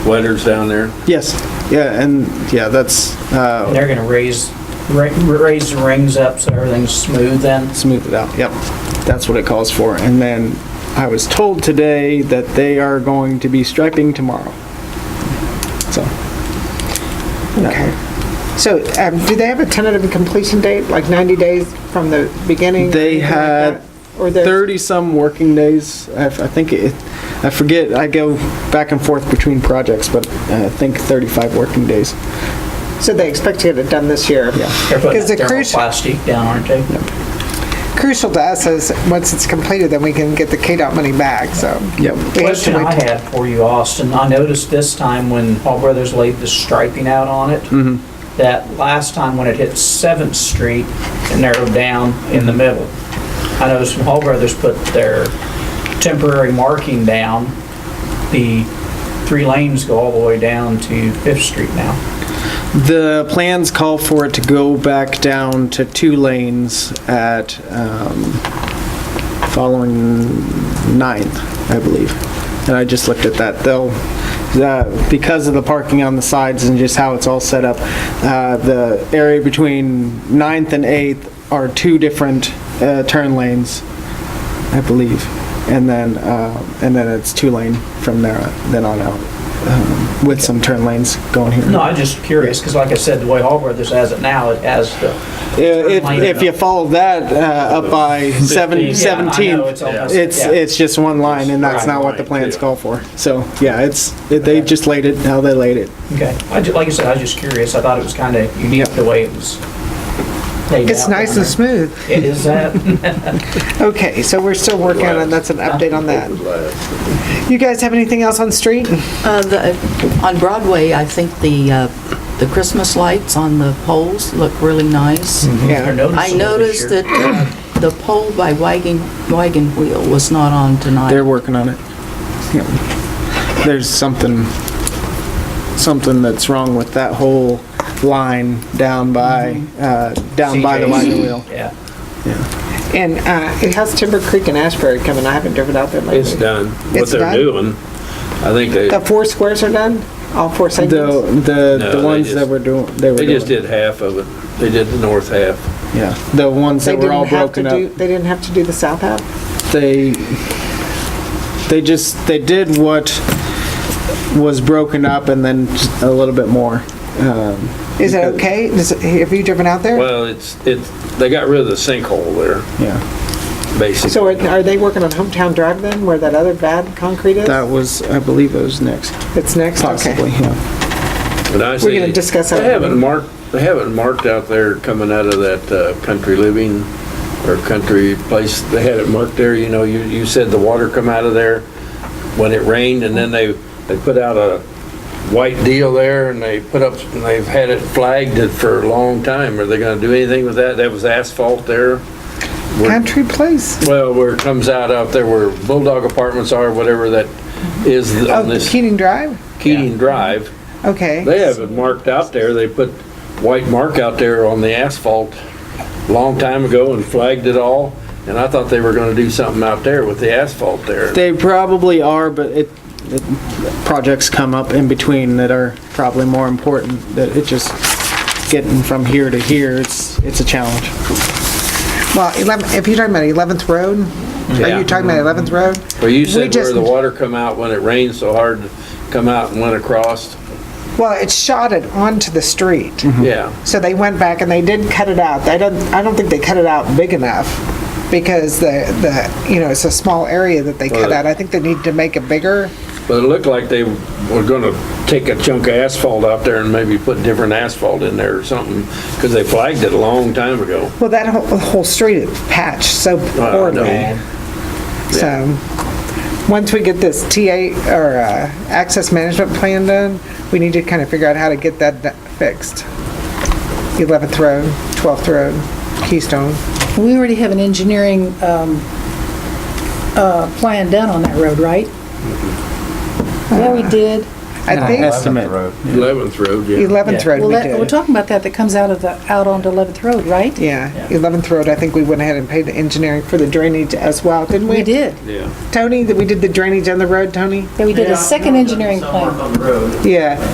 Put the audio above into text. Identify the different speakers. Speaker 1: letters down there?
Speaker 2: Yes, yeah, and, yeah, that's, uh,
Speaker 3: And they're gonna raise, ra- raise the rings up so everything's smooth then?
Speaker 2: smooth it out, yep. That's what it calls for. And then I was told today that they are going to be striping tomorrow. So.
Speaker 4: Okay. So, um, do they have a tentative completion date, like 90 days from the beginning? or
Speaker 2: They
Speaker 4: anything like
Speaker 2: had
Speaker 4: that? Or there's-
Speaker 2: 30-some working days. I I think it, I forget, I go back and forth between projects, but uh, I think 35 working days.
Speaker 4: So they expect to get it done this year?
Speaker 2: Yeah.
Speaker 3: They're putting
Speaker 4: Is it
Speaker 3: that
Speaker 4: crucial-
Speaker 3: thermoplastic down, aren't they?
Speaker 4: Crucial to us is, once it's completed, then we can get the KDOT money back, so.
Speaker 2: Yep.
Speaker 4: we have to
Speaker 3: Question I
Speaker 4: wait.
Speaker 3: had for you, Austin, I noticed this time when Hall Brothers laid the striping out on it, that last time when it hit Seventh Street, it narrowed down in the middle. I noticed when Hall Brothers put their temporary marking down, the three lanes go all the way down to Fifth Street now.
Speaker 2: The plans call for it to go back down to two lanes at, um, following Ninth, I believe. And I just looked at that. They'll, uh, because of the parking on the sides and just how it's all set up, uh, the area between Ninth and Eighth are two different uh, turn lanes, I believe. And then, uh, and then it's two lane from there, then on out, um, with some turn lanes going here.
Speaker 3: No, I'm just curious, because like I said, the way Hall Brothers has it now, it has the
Speaker 2: If,
Speaker 3: Line
Speaker 2: if
Speaker 3: up.
Speaker 2: you follow that uh, up by seven,
Speaker 3: Yeah, I know,
Speaker 2: seventeen,
Speaker 3: it's almost-
Speaker 2: it's,
Speaker 3: yeah.
Speaker 2: it's just one line and that's not what the
Speaker 1: Right.
Speaker 2: plans call for. So, yeah, it's, they just laid it how they laid it.
Speaker 3: Okay, I ju- like I said, I was just curious, I thought it was kind of unique the way it was laid out.
Speaker 4: It's nice and smooth.
Speaker 3: It is that,
Speaker 4: Okay, so we're still working on it, that's an update on that. You guys have anything else on street?
Speaker 5: Uh, the- On Broadway, I think the, uh, the Christmas lights on the poles look really nice.
Speaker 3: I
Speaker 4: Yeah.
Speaker 3: noticed.
Speaker 5: I noticed that uh, the pole by Wagon, Wagon Wheel was not on tonight.
Speaker 2: They're working on it. Yeah. There's something, something that's wrong with that whole line down by,
Speaker 4: Mm-hmm.
Speaker 2: uh, down by the wagon wheel.
Speaker 3: Yeah.
Speaker 4: And uh, it has Timber Creek and Ashbury coming, I haven't driven out there
Speaker 1: It's
Speaker 4: lately.
Speaker 1: done. What
Speaker 4: It's
Speaker 1: they're
Speaker 4: done?
Speaker 1: doing, I think they,
Speaker 4: The four squares are done? All four
Speaker 2: The,
Speaker 4: segments?
Speaker 2: the, the
Speaker 1: they
Speaker 2: ones that
Speaker 1: just-
Speaker 2: were doing, they were
Speaker 1: they just
Speaker 2: doing-
Speaker 1: did half of it. They did the north half.
Speaker 2: Yeah, the ones
Speaker 4: They
Speaker 2: that were all
Speaker 4: didn't have to
Speaker 2: broken up.
Speaker 4: do, they didn't have to do the south half?
Speaker 2: they they just they did what was broken up and then just a little bit more. Um,
Speaker 4: Is it okay? Does it- Have you driven out there?
Speaker 1: Well, it's, it's, they got rid of the sinkhole there,
Speaker 2: yeah,
Speaker 4: So
Speaker 1: basically.
Speaker 4: are- are they working on Hometown Drive then, where that other bad concrete is?
Speaker 2: that was I believe it was next,
Speaker 4: That's next? Okay.
Speaker 2: possibly. Yeah,
Speaker 1: But I
Speaker 4: We're gonna
Speaker 1: see-
Speaker 4: discuss that.
Speaker 1: They haven't marked, they haven't marked out there coming out of that uh, country living or country place. They had it marked there, you know, you, you said the water come out of there when it rained and then they, they put out a white deal there and they put up, and they've had it flagged it for a long time. Are they gonna do anything with that? That was asphalt there.
Speaker 4: Country place.
Speaker 1: Well, where it comes out out there where Bulldog Apartments are, whatever that is on
Speaker 4: Oh,
Speaker 1: this
Speaker 4: Keenan Drive?
Speaker 1: Keating Drive.
Speaker 4: Okay.
Speaker 1: They have it marked out there. They put white mark out there on the asphalt a long time ago and flagged it all. And I thought they were gonna do something out there with the asphalt there.
Speaker 2: they probably are, but it, it projects come up in between that are probably more important. That it just getting from here to here, it's it's a challenge.
Speaker 4: Well, 11 if you're talking about 11th Road, are
Speaker 1: Yeah.
Speaker 4: you talking about 11th Road?
Speaker 1: Well, you
Speaker 4: we
Speaker 1: said where
Speaker 4: just-
Speaker 1: the water come out when it rained so hard, come out and went across.
Speaker 4: Mm-hmm. Well, it shot it onto the street.
Speaker 1: Yeah.
Speaker 4: So they went back and they did cut it out. I don't, I don't think they cut it out big enough because the, the, you know, it's a small area that they cut
Speaker 1: Well,
Speaker 4: out. I think they need to make it bigger.
Speaker 1: But it looked like they were gonna take a chunk of asphalt out there and maybe put different asphalt in there or something, because they flagged it a long time ago.
Speaker 4: Well, that whole, whole street is patched so
Speaker 1: I
Speaker 4: poorly.
Speaker 1: know.
Speaker 4: So, um, once we get this TA, or uh, access management plan done, we need to kind of figure out how to get that do- fixed. 11th Road, 12th Road, Keystone.
Speaker 6: We already have an engineering um,
Speaker 4: Mm-hmm.
Speaker 6: uh, plan done on that road, right? Yeah, we did.
Speaker 4: I think
Speaker 2: estimate.
Speaker 1: 11th Road, yeah.
Speaker 4: 11th Road
Speaker 6: Well,
Speaker 4: we
Speaker 6: that- we're
Speaker 4: did.
Speaker 6: talking about that, that comes out of the, out onto 11th Road, right?
Speaker 4: Yeah, 11th Road, I think we went ahead and paid the engineering for the drainage as well, didn't we?
Speaker 6: We did.
Speaker 4: Tony, that we did the drainage on the road, Tony?
Speaker 6: Yeah, we did a second engineering plan.
Speaker 4: Yeah.